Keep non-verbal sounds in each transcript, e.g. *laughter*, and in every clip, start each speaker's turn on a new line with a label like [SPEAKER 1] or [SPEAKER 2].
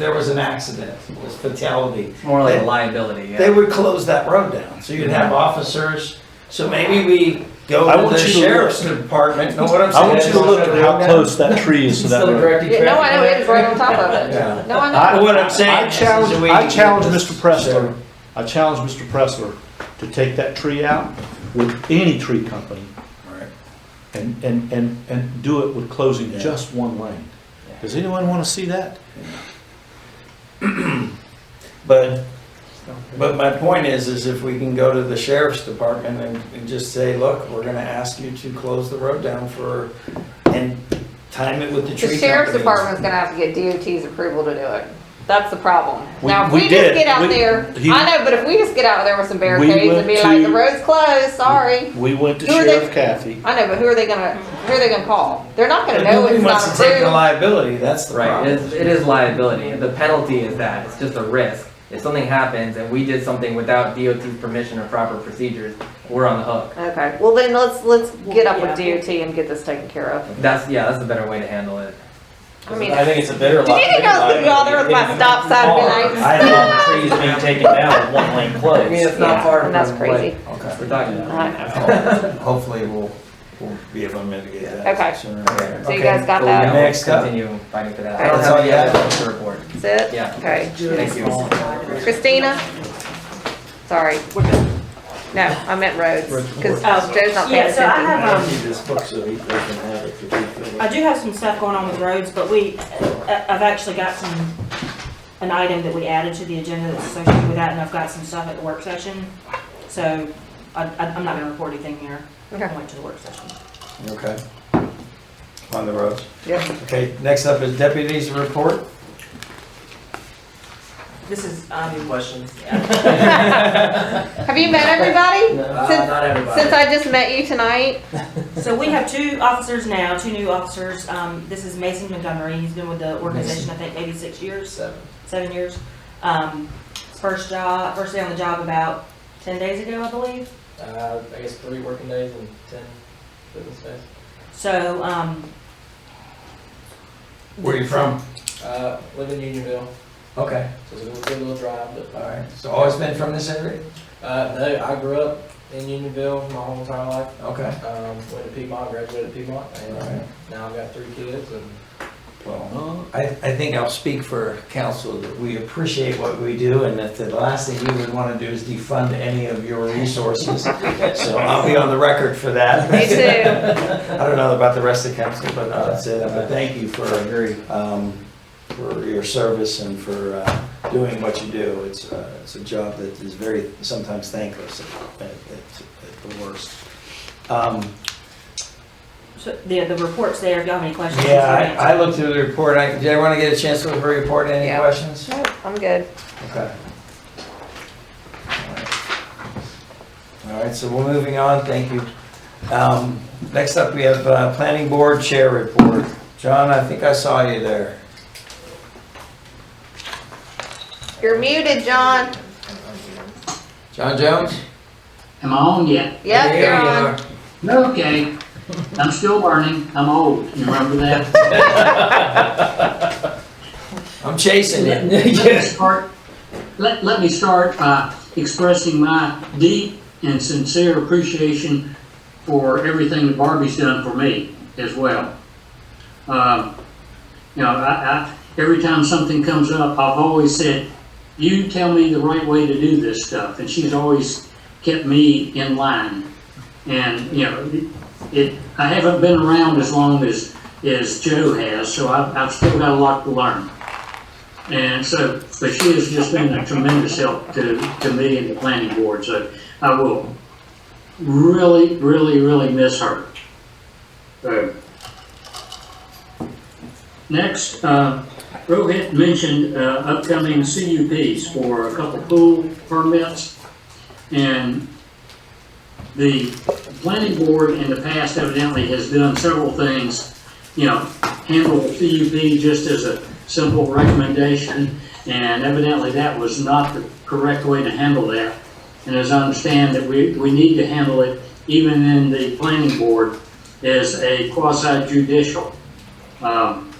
[SPEAKER 1] there was an accident, it was fatality,
[SPEAKER 2] More like a liability, yeah. Mm-hmm.
[SPEAKER 1] they would close that road down. So you'd have officers, so maybe we
[SPEAKER 3] I
[SPEAKER 1] go to
[SPEAKER 3] want
[SPEAKER 1] the
[SPEAKER 3] you to look-
[SPEAKER 1] sheriff's department, know what I'm saying?
[SPEAKER 3] I want you to look at how close that tree is to that road.
[SPEAKER 4] Yeah, no, I know, it's right on top of it.
[SPEAKER 1] Yeah.
[SPEAKER 4] No, I know.
[SPEAKER 3] I-
[SPEAKER 1] What I'm saying
[SPEAKER 3] I
[SPEAKER 1] is,
[SPEAKER 3] challenge,
[SPEAKER 1] is we-
[SPEAKER 3] I challenge Mr.
[SPEAKER 1] Sure.
[SPEAKER 3] Pressler, I challenge Mr. Pressler to take that tree out with any tree company and, and, and, and do it with closing
[SPEAKER 1] Yeah.
[SPEAKER 3] just one lane. Does anyone want to see that?
[SPEAKER 1] But, but my point is, is if we can go to the sheriff's department and, and just say, look, we're gonna ask you to close the road down for, and time it with the tree
[SPEAKER 4] The sheriff's
[SPEAKER 1] companies.
[SPEAKER 4] department's gonna have to get DOT's approval to do it. That's the problem.
[SPEAKER 3] We-
[SPEAKER 4] Now, if
[SPEAKER 3] we
[SPEAKER 4] we
[SPEAKER 3] did.
[SPEAKER 4] just get out
[SPEAKER 3] We-
[SPEAKER 4] there,
[SPEAKER 3] he-
[SPEAKER 4] I know, but if we just get out there with some barricades
[SPEAKER 3] went
[SPEAKER 4] and be like,
[SPEAKER 3] to-
[SPEAKER 4] the road's closed, sorry.
[SPEAKER 3] We went to
[SPEAKER 4] Who are they-
[SPEAKER 3] Sheriff Kathy.
[SPEAKER 4] I know, but who are they gonna, who are they gonna call? They're not gonna
[SPEAKER 1] But
[SPEAKER 4] know
[SPEAKER 1] nobody
[SPEAKER 4] it's
[SPEAKER 1] wants
[SPEAKER 4] not
[SPEAKER 1] to take the
[SPEAKER 4] approved.
[SPEAKER 1] liability, that's the
[SPEAKER 2] Right, it
[SPEAKER 1] problem.
[SPEAKER 2] is, it is liability. The penalty is that, it's just a risk. If something happens and we did something without DOT's permission or proper procedures, we're on the hook.
[SPEAKER 4] Okay, well then let's, let's get up with
[SPEAKER 5] Yeah.
[SPEAKER 4] DOT and get this taken care of.
[SPEAKER 2] That's, yeah, that's a better way to handle it.
[SPEAKER 4] I mean,
[SPEAKER 6] I think it's a better.
[SPEAKER 4] do you think I was gonna go out there with my stop sign and be like? *laughs*
[SPEAKER 6] I don't know, trees being taken down with one lane
[SPEAKER 2] I mean,
[SPEAKER 6] closed.
[SPEAKER 2] it's not
[SPEAKER 4] Yeah,
[SPEAKER 2] far from
[SPEAKER 4] and that's
[SPEAKER 2] what
[SPEAKER 4] crazy.
[SPEAKER 2] we're
[SPEAKER 1] Okay.
[SPEAKER 2] talking about.
[SPEAKER 4] I know.
[SPEAKER 1] Hopefully, we'll, we'll be able to mitigate
[SPEAKER 4] Okay.
[SPEAKER 1] that sooner or later.
[SPEAKER 4] So you
[SPEAKER 1] Okay.
[SPEAKER 4] guys got
[SPEAKER 2] So,
[SPEAKER 4] that?
[SPEAKER 2] yeah, we'll
[SPEAKER 1] Next up.
[SPEAKER 2] Continue fighting for that.
[SPEAKER 4] Okay.
[SPEAKER 2] I don't
[SPEAKER 1] That's all
[SPEAKER 2] have any
[SPEAKER 1] you
[SPEAKER 2] other
[SPEAKER 1] have?
[SPEAKER 2] to report.
[SPEAKER 4] That's it?
[SPEAKER 2] Yeah.
[SPEAKER 4] Okay.
[SPEAKER 2] Thank you.
[SPEAKER 4] Christina? Sorry. No, I meant roads, because Joe's not paying
[SPEAKER 5] Yeah, so I
[SPEAKER 4] attention.
[SPEAKER 5] have, um,
[SPEAKER 1] Keep this book so he they can have it if he feels-
[SPEAKER 5] I do have some stuff going on with roads, but we, I- I've actually got some, an item that we added to the agenda that's associated with that, and I've got some stuff at the work session. So I, I- I'm not gonna report anything here. I
[SPEAKER 4] Okay.
[SPEAKER 5] went to the work session.
[SPEAKER 1] Okay. On the roads.
[SPEAKER 4] Yep.
[SPEAKER 1] Okay, next up is deputies report.
[SPEAKER 5] This is, um,
[SPEAKER 2] Questions?
[SPEAKER 4] Have you met everybody? Since-
[SPEAKER 2] Uh, Not everybody.
[SPEAKER 4] Since I just met you tonight?
[SPEAKER 5] *laughs* so we have two officers now, two new officers. Um, this is Mason Montgomery. He's been with the organization, I think, maybe six years.
[SPEAKER 2] Seven.
[SPEAKER 5] seven years. Um, first job, first day on the job about ten days ago, I believe.
[SPEAKER 2] Uh, I guess three working days and ten business days.
[SPEAKER 5] So, um,
[SPEAKER 1] Where you from?
[SPEAKER 2] Uh, live in Unionville,
[SPEAKER 1] Okay,
[SPEAKER 2] so it's a little, good little drive, but,
[SPEAKER 1] all right. So always been from this area?
[SPEAKER 2] uh, no, I grew up in Unionville my whole entire life.
[SPEAKER 1] Okay.
[SPEAKER 2] Um, went to Piedmont, graduated at Piedmont,
[SPEAKER 1] All
[SPEAKER 2] and uh,
[SPEAKER 1] right.
[SPEAKER 2] now I've got three kids and.
[SPEAKER 3] Uh,
[SPEAKER 1] Well, I, I think I'll speak for council that we appreciate what we do and that the last thing you would want to do is defund any of your resources. So I'll be on the record for that.
[SPEAKER 4] Me
[SPEAKER 1] *laughs*
[SPEAKER 4] too.
[SPEAKER 1] I don't know about the rest of council, but uh, that's it. But thank you for
[SPEAKER 2] agree.
[SPEAKER 1] um, for your service and for uh, doing what you do. It's, uh, it's a job that is very, sometimes thankless at, at- at the worst. Um,
[SPEAKER 5] so the, the report's there, if y'all have any questions.
[SPEAKER 1] Yeah, I, I looked through the report, I, did everyone get a chance to look through the report, any
[SPEAKER 4] Yeah.
[SPEAKER 1] questions?
[SPEAKER 4] Nope, I'm good.
[SPEAKER 1] Okay. All right, so we're moving on, thank you. Um, Next up, we have uh, Planning Board Chair Report. John, I think I saw you there.
[SPEAKER 4] You're muted, John.
[SPEAKER 1] John Jones?
[SPEAKER 7] Am I on yet?
[SPEAKER 4] Yep,
[SPEAKER 1] There
[SPEAKER 4] you're
[SPEAKER 1] you
[SPEAKER 4] on.
[SPEAKER 1] are.
[SPEAKER 7] Okay. I'm still learning. I'm old. You remember that?
[SPEAKER 1] I'm chasing you. *laughs*
[SPEAKER 7] Let *laughs* me start, let, let me start by expressing my deep and sincere appreciation for everything that Barbie's done for me as well. Um, you know, I, I, every time something comes up, I've always said, you tell me the right way to do this stuff. And she's always kept me in line. And, you know, it, I haven't been around as long as, as Joe has, so I've, I've still got a lot to learn. And so, but she has just been a tremendous help to, to me and the planning board, so I will really, really, really miss her. So, Next, uh, Rohit mentioned, uh, upcoming CUPs for a couple pool permits. And the planning board in the past evidently has done several things, you know, handle CUP just as a simple recommendation, and evidently that was not the correct way to handle that. And as I understand that we, we need to handle it, even in the planning board, as a quasi judicial, um,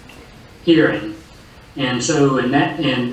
[SPEAKER 7] hearing. And so, in that, and